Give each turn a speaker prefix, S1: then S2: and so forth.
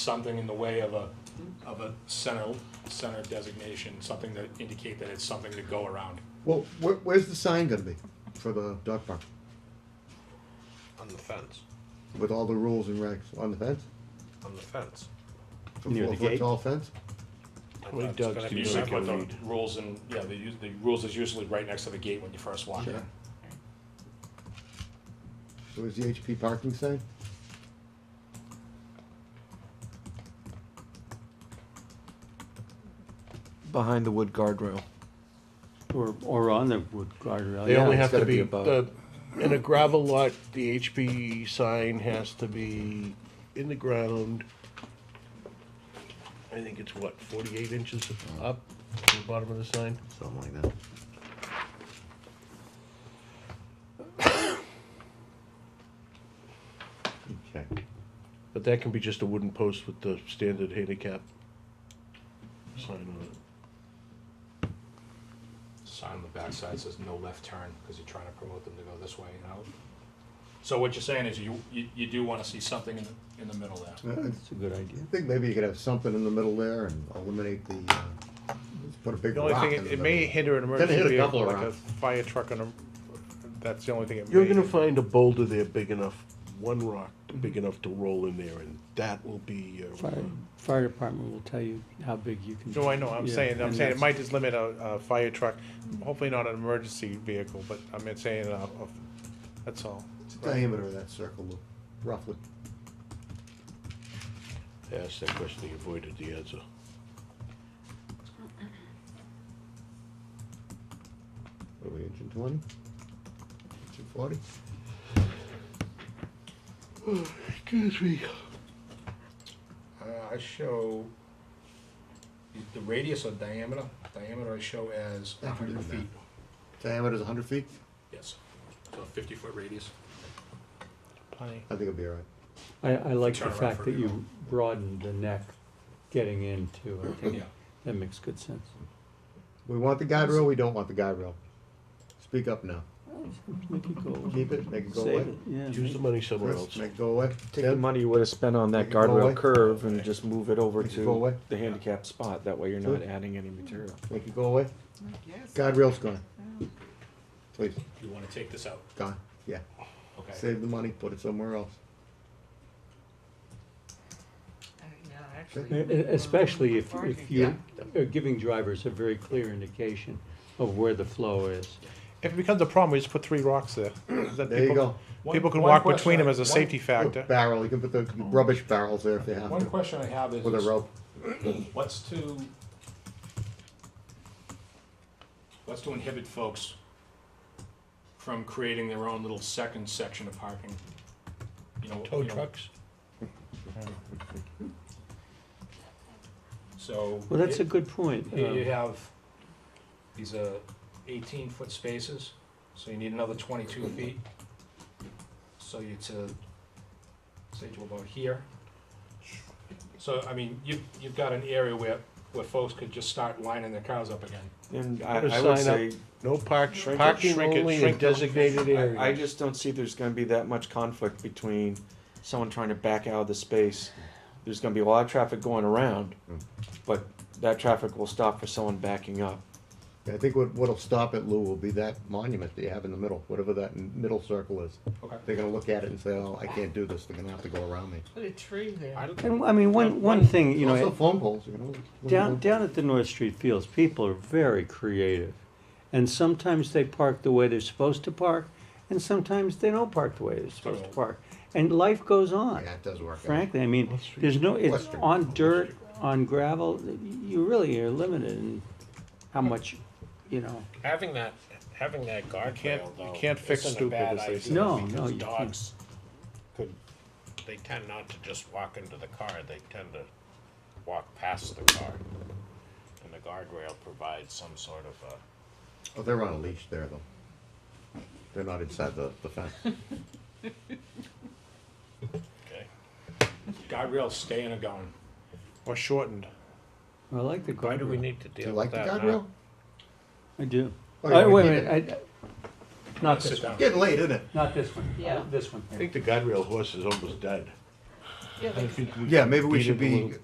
S1: something in the way of a, of a center, center designation, something that indicate that it's something to go around.
S2: Well, where, where's the sign gonna be for the dog park
S3: On the fence,
S2: with all the rules and regs on the fence?
S3: on the fence.
S2: A
S4: Near the
S2: four-foot
S4: gate?
S2: Tall fence?
S3: I
S4: Well,
S3: thought it's
S4: Doug's
S3: gonna
S4: can
S3: be
S1: You
S4: do
S1: see
S4: it.
S3: separate.
S1: what the
S4: read.
S1: rules and, yeah, the, us- the rules is usually right next to the gate when you first walk in.
S2: Yeah. So is the HP parking sign?
S5: behind the wood guardrail.
S4: Or, or on the wood guardrail.
S6: They
S4: yeah,
S6: only
S4: it's
S6: have to
S4: gotta
S6: be,
S4: above.
S6: the, in a gravel lot, the HP sign has to be in the ground. I think it's what, forty-eight inches up to the bottom of the sign?
S2: Something like that. Okay.
S6: But that can be just a wooden post with the standard handicap sign on it.
S1: Sign on the backside says no left turn, because you're trying to promote them to go this way and out. So what you're saying is you, you, you do wanna see something in the, in the middle there.
S2: I
S4: That's a good idea.
S2: think maybe you could have something in the middle there and eliminate the, uh, just put a big
S7: The only
S2: rock
S7: thing,
S2: in the
S7: it- it
S2: middle.
S7: may hinder an
S2: hit
S7: emergency
S2: a
S7: vehicle,
S2: couple
S7: like a
S2: around.
S7: fire truck on a, that's the only thing it may.
S6: You're gonna find a boulder there big enough, one rock big enough to roll in there, and that will be your.
S4: Fire, fire department will tell you how big you can.
S7: No, I know, I'm
S4: Yeah,
S7: saying, I'm
S4: and
S7: saying it
S4: that's-
S7: might just limit a, a fire truck, hopefully not an emergency vehicle, but I'm not saying, uh, of, that's all.
S2: What's the Diameter of that circle, Lou? roughly.
S6: I asked that question, you avoided the answer.
S2: What are we, inch and twenty? Inch and forty?
S6: Excuse me.
S1: Uh, I show the radius or diameter, diameter I show as
S2: Yeah, we did
S1: hundred
S2: that.
S1: feet.
S2: Diameter's a hundred feet?
S1: Yes, so fifty foot radius.
S7: Plenty.
S2: I think it'll be all right.
S4: I, I like the
S1: Turnaround
S4: fact
S1: for
S4: that
S1: you.
S4: you broadened the neck getting into it. I think
S1: Yeah.
S4: that makes good sense.
S2: We want the guide rail, we don't want the guide rail. Speak up now.
S4: Make it go.
S2: Keep it, make it go
S4: Save
S2: away.
S4: it, yeah.
S6: Use the
S4: make-
S6: money somewhere
S2: Chris,
S6: else.
S2: make it go away.
S5: Take the
S2: Tim?
S5: money you would have spent on that
S2: Make it go away.
S5: guardrail curve and
S1: Okay.
S5: just move it over
S2: Make it go away.
S5: to the handicap spot. That way you're
S2: Sure.
S5: not adding any material.
S2: Make it go away.
S8: Yes.
S2: Guide rail's gone. Please,
S1: You wanna take this out,
S2: gone, yeah.
S1: okay?
S2: Save the money, put it somewhere else.
S8: Uh, yeah, actually,
S4: E-
S8: we
S4: e-
S8: were
S4: Especially if,
S8: parking.
S4: if you are giving drivers a very clear indication of where the flow is.
S7: If it becomes a problem, we just put three rocks there. Then
S2: There you
S7: people-
S2: go.
S1: One-
S7: People can
S1: one
S7: walk between
S1: question-
S7: them as a
S1: one-
S7: safety factor.
S2: Barrel, you can put the rubbish barrels there if you have
S1: One
S2: to,
S1: question I have is.
S2: with a rope.
S1: What's to, what's to inhibit folks from creating their own little second section of parking? You know,
S6: Tow
S1: you know,
S6: trucks?
S1: So.
S4: Well, that's a
S1: here-
S4: good point.
S1: Here you
S4: um,
S1: have, these are eighteen foot spaces, so you need another twenty-two feet. So you're to, say to about here. So, I mean, you've, you've got an area where, where folks could just start lining their cars up again.
S5: And I,
S6: Put a
S5: I would
S6: sign
S5: say,
S6: No park,
S5: Shrink it,
S6: parking
S7: shrink it,
S6: only in
S7: shrink it.
S6: designated areas.
S5: I, I just don't see there's gonna be that much conflict between someone trying to back out of the space. There's gonna be a lot of traffic going around, but that traffic will stop for someone backing up.
S2: I think what, what'll stop it, Lou, will be that monument that you have in the middle, whatever that n- middle circle is.
S1: Okay.
S2: They're gonna look at it and say, oh, I can't do this, they're gonna have to go around me.
S8: Put a tree there.
S1: I don't-
S4: And, I mean, one, one thing, you know.
S2: Also phone poles, you know.
S4: Down, down at the North Street Fields, people are very creative. And sometimes they park the way they're supposed to park, and sometimes they don't park the way they're supposed to park. And life goes on.
S2: Yeah, it does work. out.
S4: Frankly, I mean, there's no, it's
S2: Western.
S4: on dirt, on gravel, you really are limited in how much, you know.
S3: Having that, having that
S7: can't-
S3: guardrail
S7: you
S3: though.
S7: can't fix
S3: isn't a
S7: stupid,
S3: bad
S7: as they
S3: idea
S7: say.
S4: No, no,
S3: because
S4: you can't.
S3: Dogs could, they tend not to just walk into the car, they tend to walk past the car. And the guardrail provides some sort of a,
S2: Oh, they're on a leash there, though. They're not inside the, the fence.
S3: uh, okay?
S1: Guardrails staying or going?
S7: Or shortened.
S4: I like the
S3: Why do we
S4: guardrail.
S3: need to
S2: Do you
S3: deal with
S2: like the
S3: that now?
S2: guardrail?
S4: I do.
S2: Oh, yeah,
S4: Uh,
S2: we
S4: Wait a
S2: need
S4: minute, I- I- not this
S1: Sit
S4: one,
S1: down.
S2: Getting late, isn't it?
S4: not this one,
S8: Yeah.
S4: this one.
S6: I think the guide rail horse is almost dead.
S8: Yeah, they
S6: I think we
S2: Yeah, maybe we
S6: beat
S2: should
S6: it a
S2: be
S6: little.